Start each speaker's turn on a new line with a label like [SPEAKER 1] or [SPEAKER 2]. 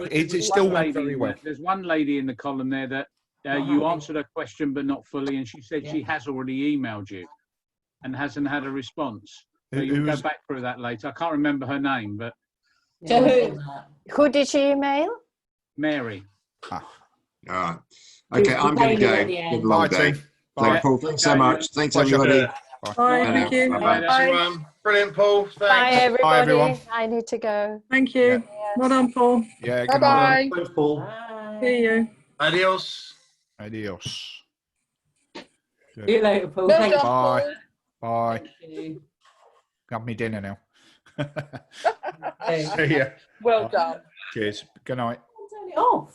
[SPEAKER 1] It's, it's
[SPEAKER 2] There's
[SPEAKER 1] still
[SPEAKER 2] one
[SPEAKER 1] made
[SPEAKER 2] lady in
[SPEAKER 1] very well.
[SPEAKER 2] there- There's one lady in the column there that uh, you answered her question but not fully, and she said she has already emailed you and hasn't had a response. So
[SPEAKER 1] Who-
[SPEAKER 2] you'll
[SPEAKER 1] who
[SPEAKER 2] go
[SPEAKER 1] was-
[SPEAKER 2] back through that later. I can't remember her name, but
[SPEAKER 3] To who?
[SPEAKER 4] Who did she email?
[SPEAKER 2] Mary.
[SPEAKER 5] All right. Ah. Okay, I'm going to
[SPEAKER 3] Maybe
[SPEAKER 5] go.
[SPEAKER 3] at the end.
[SPEAKER 5] Good
[SPEAKER 1] Bye,
[SPEAKER 5] long day.
[SPEAKER 1] team.
[SPEAKER 5] So,
[SPEAKER 1] Bye.
[SPEAKER 5] Paul, thanks so
[SPEAKER 2] Okay.
[SPEAKER 5] much. Thanks,
[SPEAKER 1] Pleasure.
[SPEAKER 5] everybody. Bye
[SPEAKER 6] Bye, thank
[SPEAKER 5] now.
[SPEAKER 6] you.
[SPEAKER 5] Bye-bye.
[SPEAKER 6] Bye.
[SPEAKER 7] everyone. Brilliant, Paul.
[SPEAKER 4] Bye,
[SPEAKER 7] Thanks.
[SPEAKER 4] everybody.
[SPEAKER 1] Bye, everyone.
[SPEAKER 4] I need to go.
[SPEAKER 6] Thank you. Well done, Paul.
[SPEAKER 1] Yeah,
[SPEAKER 4] Bye
[SPEAKER 1] good
[SPEAKER 4] bye.
[SPEAKER 1] night.
[SPEAKER 7] Thanks, Paul.
[SPEAKER 3] Bye.
[SPEAKER 6] See you.
[SPEAKER 7] Adios.
[SPEAKER 1] Adios.
[SPEAKER 3] See you later, Paul.
[SPEAKER 4] Well
[SPEAKER 3] Thank
[SPEAKER 4] done,
[SPEAKER 1] Bye.
[SPEAKER 4] Paul.
[SPEAKER 1] Bye.
[SPEAKER 3] you.
[SPEAKER 1] Have me dinner now.
[SPEAKER 3] Okay.
[SPEAKER 1] See ya.
[SPEAKER 4] Well done.
[SPEAKER 1] Cheers. Good night.
[SPEAKER 3] Turn it off.